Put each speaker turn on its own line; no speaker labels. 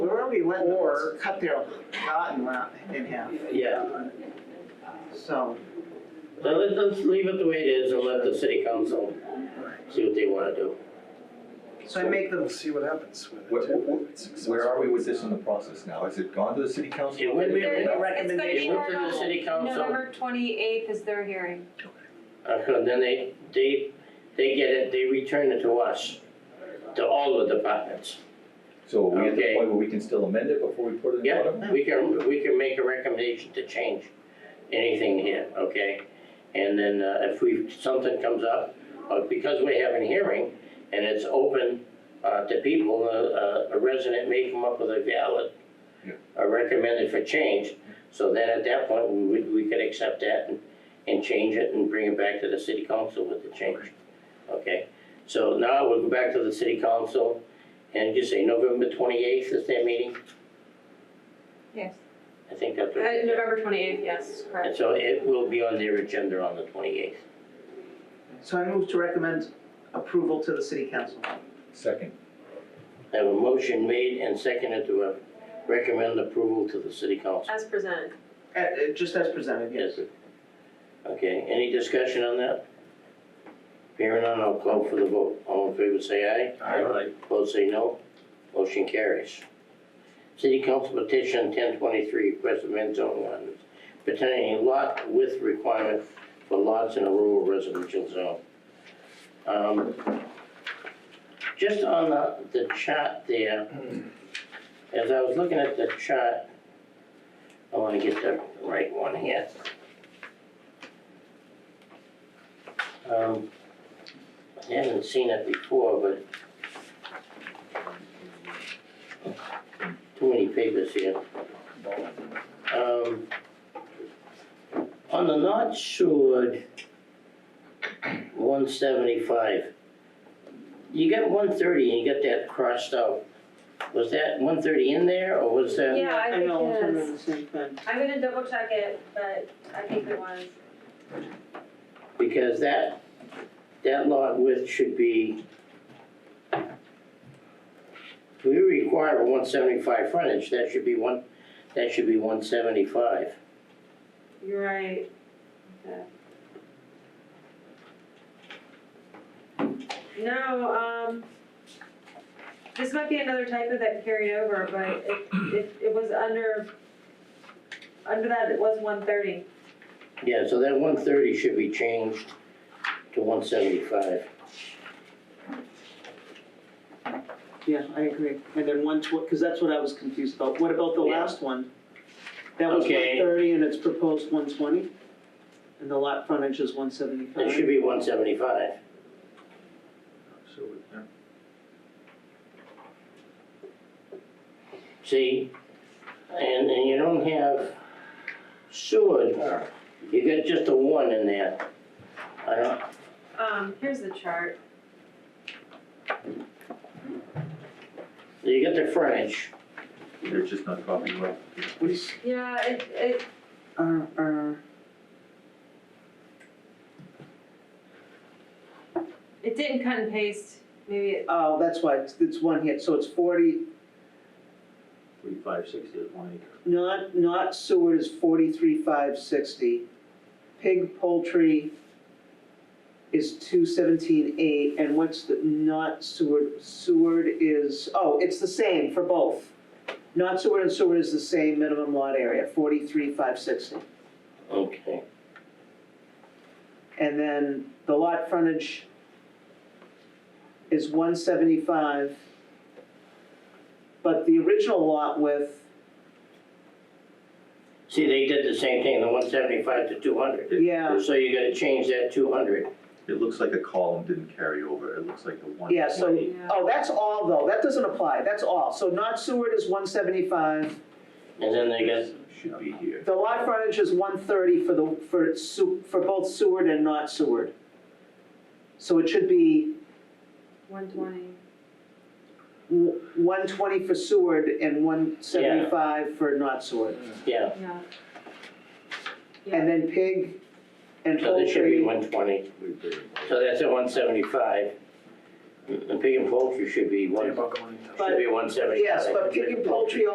or cut their garden lot in half,
Yeah,
so.
now let's, let's leave it the way it is and let the city council see what they wanna do.
So I make
We'll
them,
see what happens with
Where,
it. too.
where are we with this in the process now? Has it gone to the city council?
It went-
There-
it
it's-
went-
it's gonna be
it went to
heard
the
on-
city council,
November twenty-eighth is their hearing.
uh, then they, they, they get it, they return it to us, to all the departments.
So are we at the
Okay.
point where we can still amend it before we put it in front of them?
Yeah, we can, we can make a recommendation to change anything here, okay? And then uh, if we, something comes up, uh, because we have a hearing and it's open uh, to people, uh, uh, a resident may come up with a valid,
Yeah.
a recommended for change. So then at that point, we, would- we could accept that and, and change it and bring it back to the city council with the change. Okay, so now we'll go back to the city council and just say November twenty-eighth is their meeting?
Yes.
I think that's what.
Uh, November twenty-eighth, yes,
And
correct.
so it will be on their agenda on the twenty-eighth.
so I move to recommend approval to the city council. Uh,
Second,
I have a motion made and seconded to uh, recommend approval to the city council.
As presented.
Uh, uh, just as presented, yes.
Yes. Okay, any discussion on that? Hearing none, I'll call for the vote. All in favor, say aye. Aye. Opposed, say no. Motion carries. City Council petition ten twenty-three, request amend zoning ordinance pertaining to lot width requirement for lots in a rural residential zone. Um, Just on the, the chart there, as I was looking at the chart, I wanna get the right one here. Um, I haven't seen it before, but too many papers here. Um, on the North Shore, one seventy-five, you got one thirty and you got that crossed out. Was that one thirty in there or was that?
Yeah, I
I know,
think
I'm
it
doing
is.
the same thing.
I'm gonna double check it, but I think it was.
Because that, that lot width should be, we require a one seventy-five frontage, that should be one, that should be one seventy-five.
You're right. Okay. No, um, this might be another typo that carried over, but it, it, it was under, under that, it was one thirty.
Yeah, so that one thirty should be changed to one seventy-five.
Yeah, I agree. And then one tw- cause that's what I was confused about. What about the
Yeah.
last one? That was one
Okay.
thirty and it's proposed one twenty? And the lot frontage is one seventy-five?
It should be one seventy-five. See, and, and you don't have Seward, you got just a one in there. I don't,
Um, here's the chart.
You get the frontage,
they're just not copying well.
Yeah, it, it,
Uh, uh,
it didn't cut and paste, maybe it,
oh, that's why, it's, it's one hit, so it's forty,
Forty-five, sixty is one acre.
Not, not Seward is forty-three, five sixty. Pig poultry is two seventeen, eight, and what's the, not Seward, Seward is, oh, it's the same for both. Not Seward and Seward is the same minimum lot area, forty-three, five sixty.
okay.
And then the lot frontage is one seventy-five. But the original lot width
See, they did the same thing, the one seventy-five to two hundred.
Yeah.
So you gotta change that two hundred.
It looks like a column didn't carry over, it looks like the one.
Yeah, so,
Yeah.
oh, that's all though, that doesn't apply, that's all, so not Seward is one seventy-five,
And then they got,
Should be here.
the lot frontage is one thirty for the, for Su, for both Seward and not Seward. So it should be
one twenty.
one twenty for Seward and one seventy-five for not Seward.
yeah,
Yeah.
And then pig and
so this should be
poultry,
one twenty,
We buried it.
so that's at one seventy-five. The pig and poultry should be one,
Think about going into-
should be one seventy-five.
yes, but pig and poultry